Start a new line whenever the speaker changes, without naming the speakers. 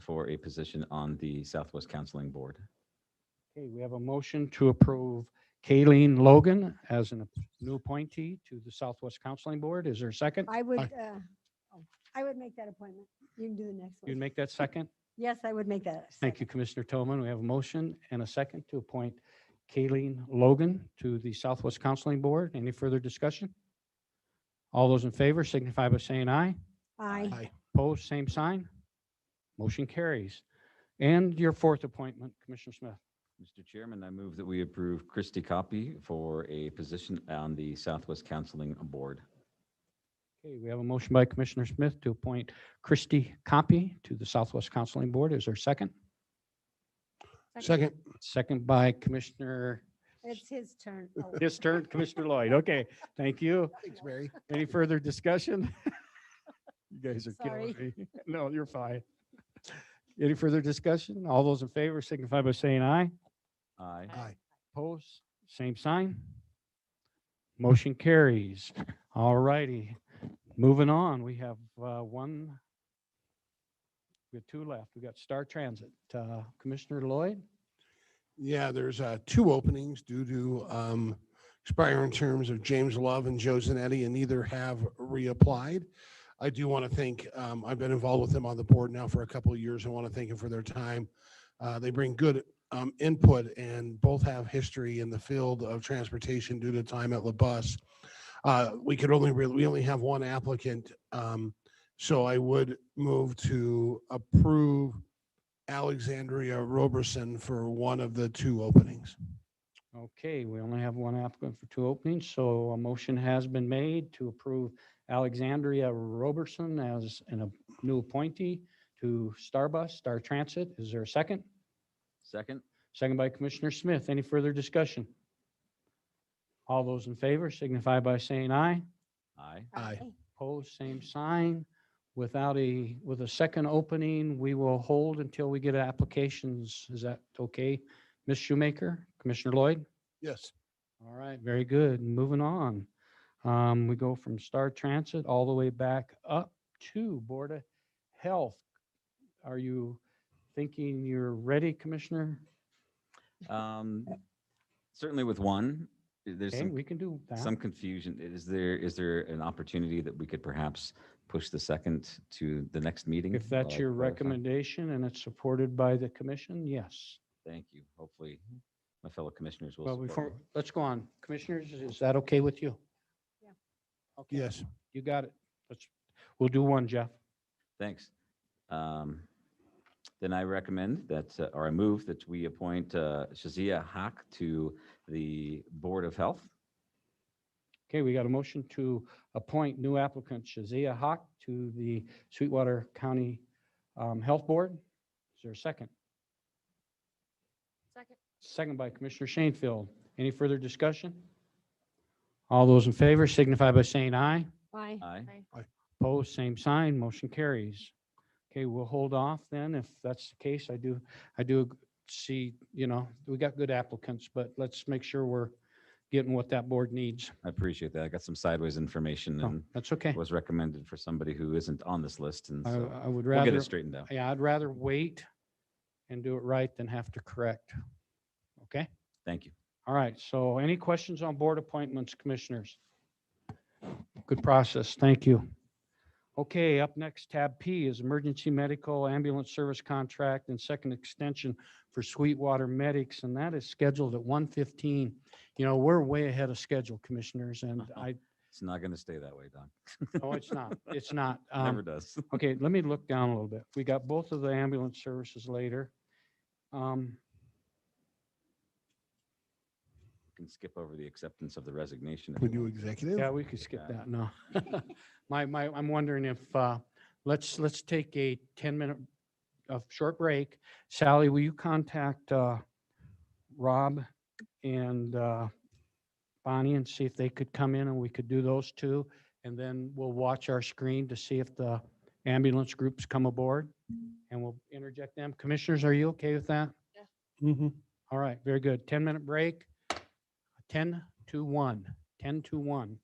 for a position on the Southwest Counseling Board.
Okay, we have a motion to approve Kayleen Logan as a new appointee to the Southwest Counseling Board. Is there a second?
I would,
I-
uh, oh, I would make that appointment. You can do the next
You'd
one.
make that second?
Yes, I would make that.
Thank you, Commissioner Tillman. We have a motion and a second to appoint Kayleen Logan to the Southwest Counseling Board. Any further discussion? All those in favor signify by saying aye.
I,
Opposed, same sign. Motion carries. And your fourth appointment, Commissioner Smith.
Mr. Chairman, I move that we approve Christy Copy for a position on the Southwest Counseling Board.
Okay, we have a motion by Commissioner Smith to appoint Christy Copy to the Southwest Counseling Board. Is there a second?
Second,
Second by Commissioner,
it's his turn. Oh,
this turn, Commissioner Lloyd. Okay, thank you.
thanks, Mary.
Any further discussion? You guys are
Sorry.
killing me. No, you're fine. Any further discussion? All those in favor signify by saying aye.
Aye.
Aye.
Opposed, same sign. Motion carries. All righty. Moving on, we have uh, one. We have two left. We got Star Transit. Uh, Commissioner Lloyd?
Yeah, there's uh, two openings due to um, expiring terms of James Love and Joe Zanetti, and neither have reapplied. I do want to thank, um, I've been involved with them on the board now for a couple of years. I want to thank them for their time. Uh, They bring good um, input and both have history in the field of transportation due to time at La Bus. Uh, We could only, really we only have one applicant. um, So I would move to approve Alexandria Roberson for one of the two openings.
Okay, we only have one applicant for two openings, so a motion has been made to approve Alexandria Roberson as an a new appointee to Starbus, Star Transit. Is there a second?
Second?
Second by Commissioner Smith. Any further discussion? All those in favor signify by saying aye.
Aye.
Aye.
Opposed, same sign. Without a, with a second opening, we will hold until we get applications. Is that okay? Ms. Shoemaker, Commissioner Lloyd?
Yes.
All right, very good. Moving on. Um, we go from Star Transit all the way back up to Board of Health. Are you thinking you're ready, Commissioner?
Um, Certainly with one, there's
Okay,
some,
we can do
some
that.
confusion. Is there, is there an opportunity that we could perhaps push the second to the next meeting?
If that's
while I
your
clarify?
recommendation and it's supported by the commission, yes.
Thank you. Hopefully, my fellow commissioners will
Well,
support.
before,
me.
let's go on. Commissioners, is that okay with you?
Yeah.
Okay,
Yes.
You got it. Let's, we'll do one, Jeff.
Thanks. Um, Then I recommend that, uh, or I move that we appoint uh, Shazia Haq to the Board of Health.
Okay, we got a motion to appoint new applicant Shazia Hawk to the Sweetwater County um, Health Board. Is there a second?
Second.
Second by Commissioner Shanefield. Any further discussion? All those in favor signify by saying aye.
Aye.
Aye.
Opposed, same sign, motion carries. Okay, we'll hold off then if that's the case. I do, I do see, you know, we got good applicants, but let's make sure we're getting what that board needs.
I appreciate that. I got some sideways information
No,
and
That's okay.
was recommended for somebody who isn't on this list, and
I,
so
I would
we'll get
rather,
it straightened out.
yeah, I'd rather wait and do it right than have to correct. Okay?
Thank you.
All right. So any questions on board appointments, commissioners? Good process. Thank you. Okay, up next, tab P is emergency medical ambulance service contract and second extension for Sweetwater Medics, and that is scheduled at 1:15. You know, we're way ahead of schedule, commissioners, and I,
It's not going to stay that way, Don.
no, it's not. It's not.
It
Um,
Never does.
Okay, let me look down a little bit. We got both of the ambulance services later. Um,
Can skip over the acceptance of the resignation. if
We
you
do
want.
executive?
Yeah, we could skip
that.
that, no. My, my, I'm wondering if, uh, let's, let's take a 10-minute, a short break. Sally, will you contact uh, Rob and uh, Bonnie and see if they could come in and we could do those two? And then we'll watch our screen to see if the ambulance groups come aboard and we'll interject them. Commissioners, are you okay with that?
Mhm.
All right, very good. 10-minute break. 10 to 1, 10 to 1.